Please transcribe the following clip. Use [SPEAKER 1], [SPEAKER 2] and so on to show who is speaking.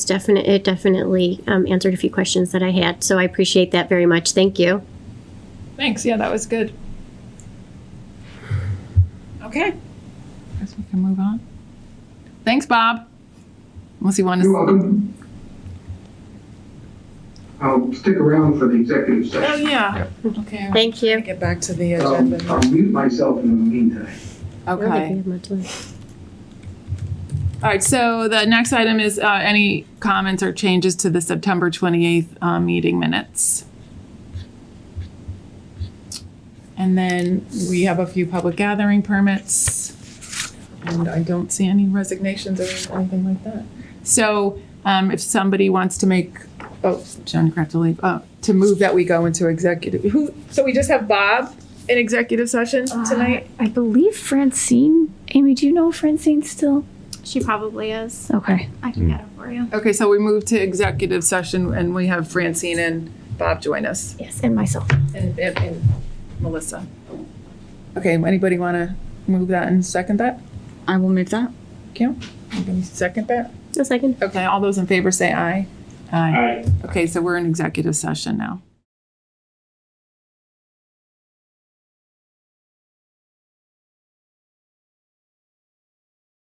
[SPEAKER 1] It's definite, it definitely um, answered a few questions that I had, so I appreciate that very much. Thank you.
[SPEAKER 2] Thanks. Yeah, that was good. Okay. Guess we can move on. Thanks, Bob. Unless you want
[SPEAKER 3] You're
[SPEAKER 2] to.
[SPEAKER 3] welcome. I'll stick around for the executive
[SPEAKER 2] Oh,
[SPEAKER 3] session.
[SPEAKER 2] yeah. Okay.
[SPEAKER 1] Thank you.
[SPEAKER 4] Get back to the
[SPEAKER 3] Um,
[SPEAKER 4] agenda.
[SPEAKER 3] I'll mute myself in the meantime.
[SPEAKER 1] I don't think we
[SPEAKER 2] Okay.
[SPEAKER 1] have much left.
[SPEAKER 2] All right. So the next item is uh, any comments or changes to the September 28th uh, meeting minutes. And then we have a few public gathering permits. And I don't see any resignations or anything like that. So um, if somebody wants to make, oh, Joan Kraft to leave, uh, to move that we go into executive, who, so we just have Bob in executive session tonight?
[SPEAKER 5] I believe Francine. Amy, do you know Francine still?
[SPEAKER 6] She probably is.
[SPEAKER 5] Okay.
[SPEAKER 6] I can get it for you.
[SPEAKER 2] Okay, so we move to executive session and we have Francine and Bob join us
[SPEAKER 5] Yes, and myself.
[SPEAKER 2] and, and- and Melissa. Okay, anybody want to move that and second that?
[SPEAKER 7] I will move that.
[SPEAKER 2] Anybody Second that?
[SPEAKER 1] A second.
[SPEAKER 2] Okay, all those in favor say aye. Aye.
[SPEAKER 3] Aye.
[SPEAKER 2] Okay, so we're in executive session now.